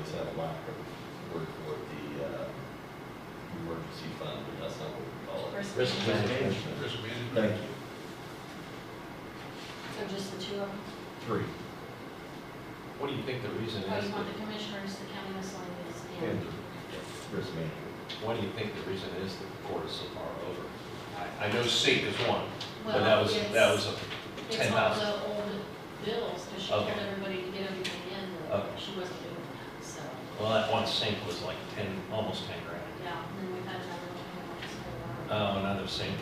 it's not a lack of work with the, uh, emergency fund, but that's not what we call it. Risk Risk management. management. Risk management. Thank you. So just the two of them? Three. What do you think the reason Oh, is? you want the that- commissioners, the county miscellaneous, and, And- Risk management. Why do you think the reason is that the court is so far over? I, I know SAFE is one, but that well, was, it's, that was a ten it's all thousand. the old bills, because she told Okay. everybody to get everything in, and Okay. she wasn't doing that, so, Well, that one sink was like ten, almost ten grand. yeah, and then we've had another one. that's for, uh, Oh, another sink.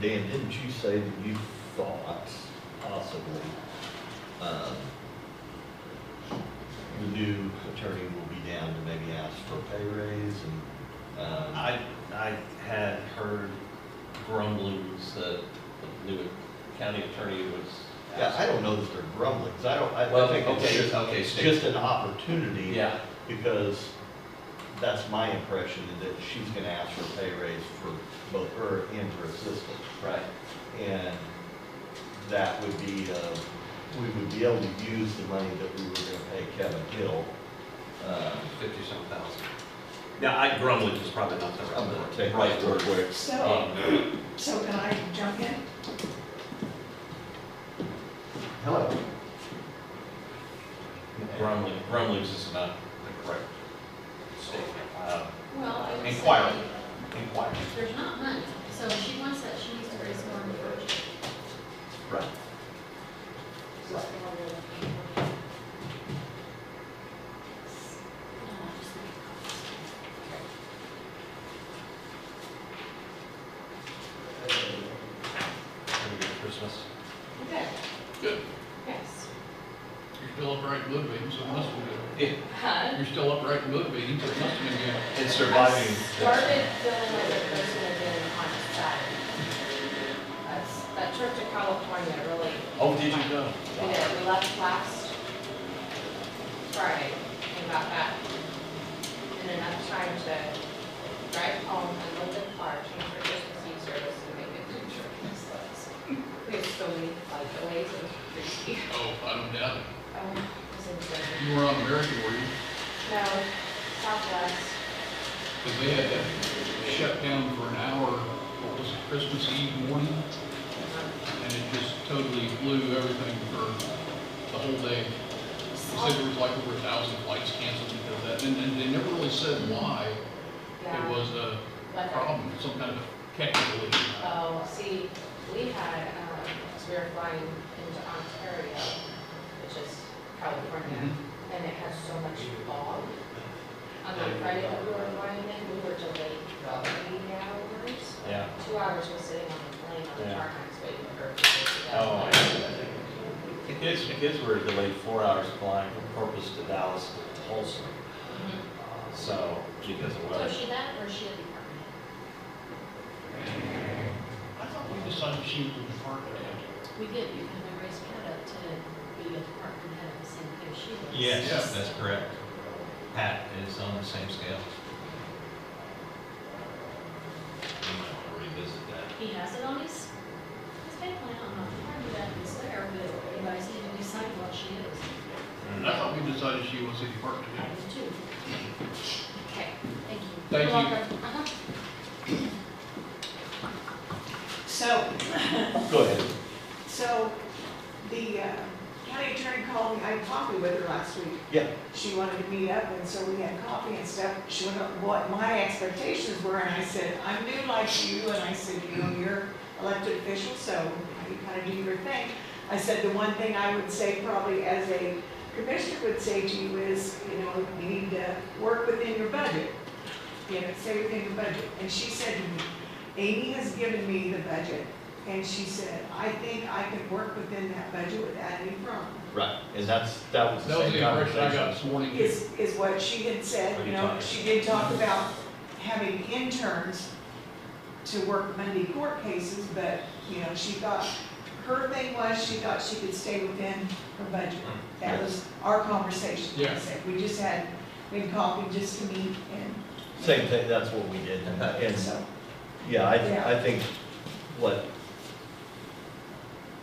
Dan, didn't you say that you thought possibly, um, the new attorney will be down to maybe ask for a pay raise and, um. I, I had heard grumblings that the new county attorney was. Yeah, I don't know that they're grumbling, 'cause I don't, I Well, I think okay, it's just, okay, it's Steve. just an opportunity. Yeah, Because that's my impression, is that she's gonna ask for a pay raise for both her and her assistant. right. And that would be, uh, we would be able to use the money that we were gonna pay Kevin Hill. uh, Fifty-seven thousand. Now, I grumbling is probably not the I'm gonna take right, right right word word. where it's. So, Um, so can I jump in? Hello. Grumbling, grumblings is not the correct statement. Um, Well, I would Inquire. say, Inquiry. there's not money, so if she wants that, she needs to raise more in the budget. Right. So it's more than what we have. No, I just think it's- Have a good Christmas. Okay, Good. yes. You're still upright in mood meetings, so it must be good. Yeah, Huh? You're still upright in mood meetings, so it must be good. And I surviving. started feeling like a person again on Saturday. That's, that trip to California really, Oh, did you go? we did, we left last Friday and got back. And enough time to drive home and look at the car, change our Christmas Eve service and make a picture of this We have so many like delays and crazy. Oh, I don't doubt it. Um, it was insane. You were on American, were you? No, Southwest. Because they had that shutdown for an hour, what was it, Christmas Eve morning? And it just totally blew everything for the whole day. They said there was like over a thousand flights canceled because of that. And, and they never really said why it Yeah. was a Weather. problem, some kind of technical issue. Oh, see, we had, um, 'cause we were flying into Ontario, which is California, and it had so much fog. On the Friday that we were flying in, we were delayed about three hours. Yeah. Two hours was sitting on the plane on the Yeah. tarmac waiting for her to get Oh, out. I see. The kids, the kids were delayed four hours flying from Corpus to Dallas to Tulsa, Mhm. so because of So weather. is she that or is she a department? I thought we decided she was the department head. We did, you can raise Pat up to be a department head at the same thing she was. Yes, that's correct. Pat is on the same scale. You might want to revisit that. He has it on his, his pay plan, I don't know if you that is there, but anybody's need to decide what she is. I thought we decided she was the department I head. do too. Okay, thank you. You're Thank you. welcome. Uh-huh. So, Go ahead. so the uh, county attorney called me, I had coffee with her last week. Yeah. She wanted to meet up, and so we had coffee and stuff. She went over what my expectations were, and I said, I'm new like you, and I said, you know, you're elected official, so you kind of do your thing. I said, the one thing I would say probably as a commissioner would say to you is, you know, you need to work within your budget. You know, stay within your budget. And she said to me, Amy has given me the budget, and she said, I think I can work within that budget without any problem. Right, and that's, that was That the was same the impression I conversation. got this morning. Is, is what she had What said, are you you know, talking she did talk about having interns to work Monday court cases, but, you know, she thought, her thing was, she thought she could stay within her budget. That was our conversation. Yeah. We just had, we had coffee just to meet and Same thing, that's what we did. And so, Yeah, I, Yeah. I think what